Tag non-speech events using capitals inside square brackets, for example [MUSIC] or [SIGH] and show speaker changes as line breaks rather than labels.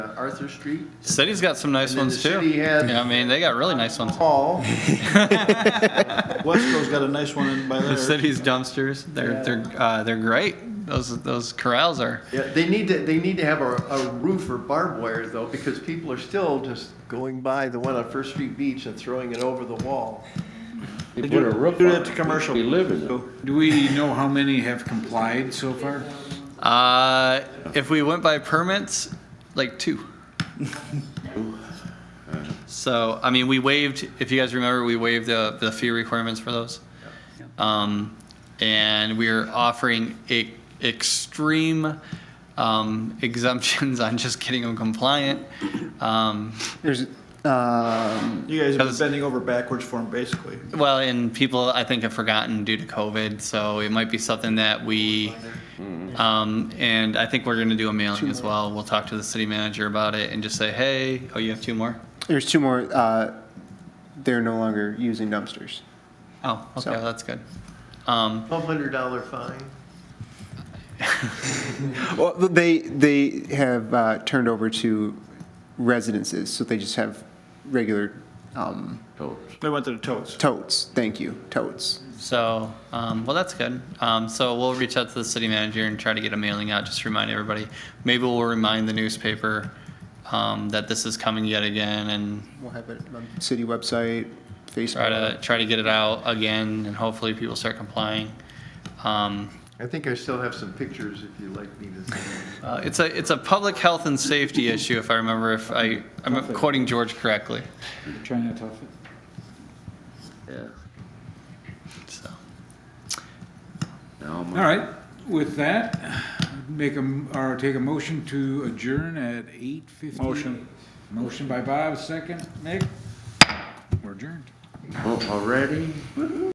Arthur Street.
City's got some nice
And then the
ones too.
city had-
Yeah, I mean, they got really nice ones.
Hall,
Wesco's got a nice one in by
The
there.
city's dumpsters, they're, they're, uh, they're great. Those, those corrals are,
yeah, they need to, they need to have a, a roof or barbed wire though, because people are still just going by the one on First Street Beach and throwing it over the wall.
They
do-
put a roof
do
on
that
it.
to commercial.
We live in it.
So,
Do we know how many have complied so far?
uh, if we went by permits, like
[LAUGHS]
two. So, I mean, we waived, if you guys remember, we waived the, the fee requirements for those. Um, and we're offering e- extreme, um, [LAUGHS] exemptions on just getting them compliant. Um,
There's, um,
You guys have been
Because-
bending over backwards for them, basically.
Well, and people, I think, have forgotten due to COVID, so it might be something that we, um, and I think we're gonna do a mailing as well. We'll talk to the city manager about it and just say, hey, oh, you have two more?
there's two more, uh, they're no longer using dumpsters.
Oh, okay,
So-
well, that's good. Um,
Twelve hundred dollar fine.
Well, they, they have, uh, turned over to residences, so they just have regular, um,
Totes.
They went to the totes.
totes, thank you, totes.
so, um, well, that's good. Um, so we'll reach out to the city manager and try to get a mailing out, just to remind everybody. Maybe we'll remind the newspaper, um, that this is coming yet again and
We'll have it on city website, Facebook.
try to, try to get it out again and hopefully people start complying. Um,
I think I still have some pictures if you'd like me to send them.
Uh, It's a, it's a public health and safety issue, if I remember, if I, I'm quoting George correctly,
Trying to tough it.
so.
Now my-
All right, with that, make a, m- or take a motion to adjourn at eight fifty. Motion. Motion by Bob, second, Nick. We're adjourned.
Oh, Already?